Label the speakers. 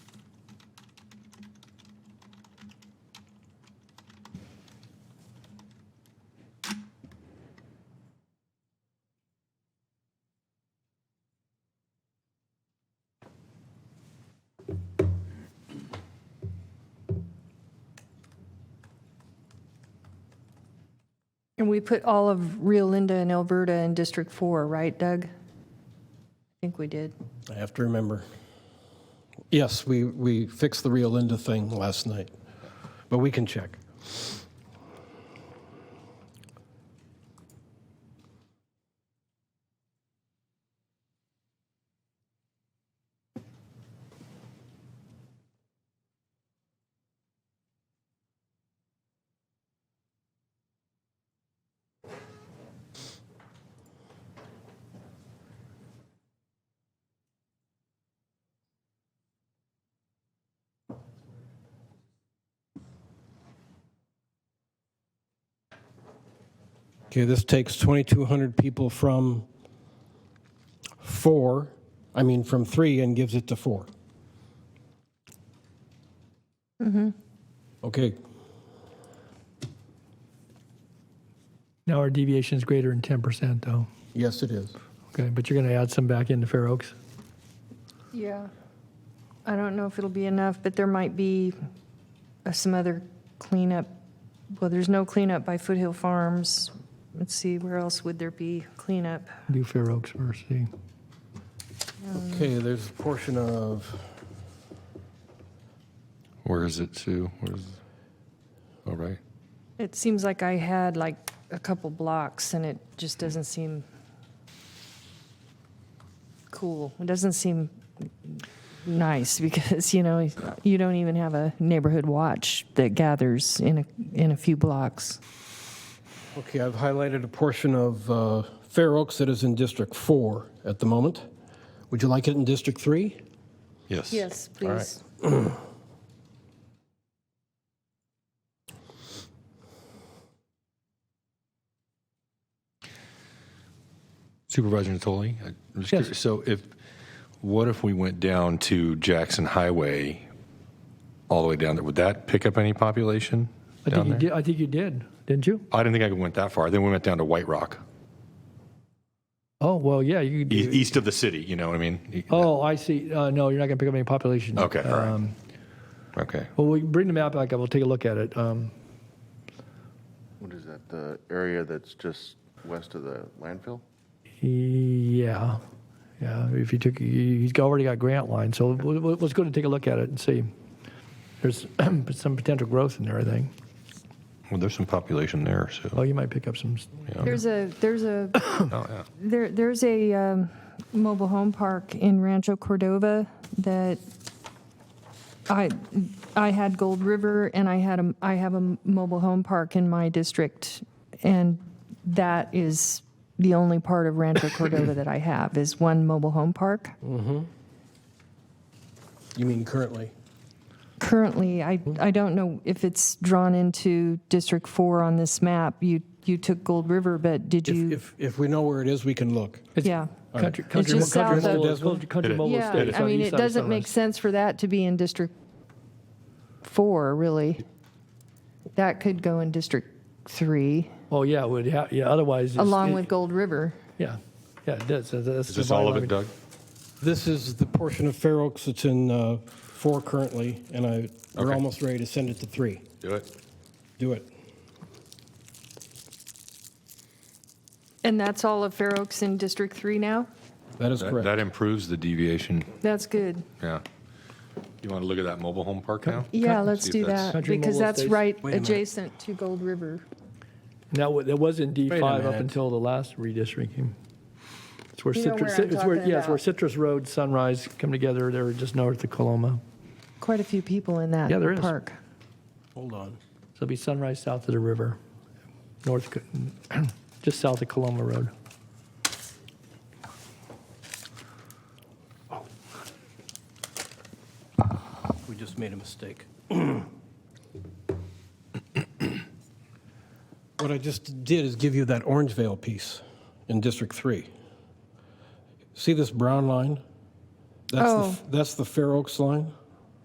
Speaker 1: And we put all of Rio Linda and Alberta in District 4, right, Doug? I think we did.
Speaker 2: I have to remember. Yes, we, we fixed the Rio Linda thing last night, but we can check. Okay, this takes 2,200 people from four, I mean, from three and gives it to four. Mm-hmm. Okay,
Speaker 3: Now our deviation is greater than 10%, though.
Speaker 2: yes, it is.
Speaker 3: Okay, but you're going to add some back into Fair Oaks.
Speaker 1: Yeah. I don't know if it'll be enough, but there might be uh, some other cleanup. Well, there's no cleanup by Foothill Farms. Let's see, where else would there be cleanup?
Speaker 3: Do Fair Oaks first, see.
Speaker 2: Okay, there's a portion of,
Speaker 4: Where is it, Sue? Where is? All right.
Speaker 1: It seems like I had like a couple blocks and it just doesn't seem cool. It doesn't seem nice because, you know, you don't even have a neighborhood watch that gathers in a, in a few blocks.
Speaker 2: okay, I've highlighted a portion of uh, Fair Oaks that is in District 4 at the moment. Would you like it in District 3?
Speaker 4: Yes.
Speaker 1: Yes,
Speaker 2: right.
Speaker 1: please.
Speaker 4: Supervisor Natoli, I'm just
Speaker 3: Yes.
Speaker 4: curious. So if, what if we went down to Jackson Highway, all the way down there? Would that pick up any population
Speaker 3: I think
Speaker 4: down
Speaker 3: you
Speaker 4: there?
Speaker 3: did, I think you did, didn't you?
Speaker 4: I didn't think I went that far. Then we went down to White Rock,
Speaker 3: Oh, well, yeah, you could
Speaker 4: e-
Speaker 3: do.
Speaker 4: east of the city. You know what I mean? E,
Speaker 3: Oh, I see. Uh, No, you're not going to pick up any population.
Speaker 4: Okay, all right.
Speaker 3: Um,
Speaker 4: Okay.
Speaker 3: Well, we bring the map back up, we'll take a look at it. Um,
Speaker 5: What is that, the area that's just west of the landfill?
Speaker 3: Yeah, yeah, if you took, he- he's already got grant line, so we'll- we'll- let's go and take a look at it and see. There's some potential growth in there, I think.
Speaker 4: Well, there's some population there,
Speaker 3: Oh,
Speaker 4: so.
Speaker 3: you might pick up some, s-
Speaker 1: There's a, there's a,
Speaker 4: Oh, yeah.
Speaker 1: there, there's a um, mobile home park in Rancho Cordova that I, I had Gold River and I had a, I have a m- mobile home park in my district. And that is the only part of Rancho Cordova that I have is one mobile home park.
Speaker 2: You mean currently?
Speaker 1: Currently, I, I don't know if it's drawn into District Four on this map. You, you took Gold River, but did
Speaker 2: If,
Speaker 1: you?
Speaker 2: if, if we know where it is, we can look.
Speaker 3: It's-
Speaker 1: Yeah.
Speaker 3: Country,
Speaker 2: It's
Speaker 3: country,
Speaker 1: just
Speaker 3: country,
Speaker 1: south of-
Speaker 3: mobile,
Speaker 2: Desmond?
Speaker 3: country, country
Speaker 4: It is.
Speaker 3: mobile
Speaker 1: Yeah,
Speaker 3: estate.
Speaker 1: I mean, it doesn't make sense for that to be in District 4, really. That could go in District 3,
Speaker 3: Oh yeah, it would ha- yeah. Otherwise, it's-
Speaker 1: along
Speaker 3: it-
Speaker 1: with Gold River.
Speaker 3: yeah, yeah, it does. That's, that's
Speaker 4: Is this all of it, Doug?
Speaker 2: This is the portion of Fair Oaks that's in uh, four currently, and I, we're
Speaker 4: Okay.
Speaker 2: almost ready to send it to three.
Speaker 4: Do it.
Speaker 2: Do it.
Speaker 1: And that's all of Fair Oaks in District 3 now?
Speaker 2: That is
Speaker 4: That
Speaker 2: correct.
Speaker 4: that improves the deviation,
Speaker 1: That's good.
Speaker 4: yeah. You want to look at that mobile home park now?
Speaker 1: Yeah, let's
Speaker 4: if
Speaker 1: do
Speaker 4: that's-
Speaker 1: that,
Speaker 3: Country
Speaker 1: because
Speaker 3: Mobile
Speaker 1: that's
Speaker 3: Estates.
Speaker 1: right
Speaker 2: Wait a minute.
Speaker 1: adjacent to Gold River.
Speaker 3: Now it was in D
Speaker 2: Wait a
Speaker 3: five up
Speaker 2: minute.
Speaker 3: until the last redistricting. It's where
Speaker 1: You know
Speaker 3: citrus.
Speaker 1: where I'm
Speaker 3: it's where
Speaker 1: talking
Speaker 3: yeah, it's where
Speaker 1: about.
Speaker 3: Citrus Road, Sunrise come together. They're just north of Coloma.
Speaker 1: Quite a few people in that
Speaker 3: Yeah, there is.
Speaker 1: park.
Speaker 2: Hold on.
Speaker 3: So it'll be Sunrise south of the river, north, Co- just south of Coloma Road.
Speaker 2: We just made a mistake. What I just did is give you that Orangevale piece in District Three. See this brown line? That's the,
Speaker 1: Oh.
Speaker 2: f- that's the Fair Oaks line.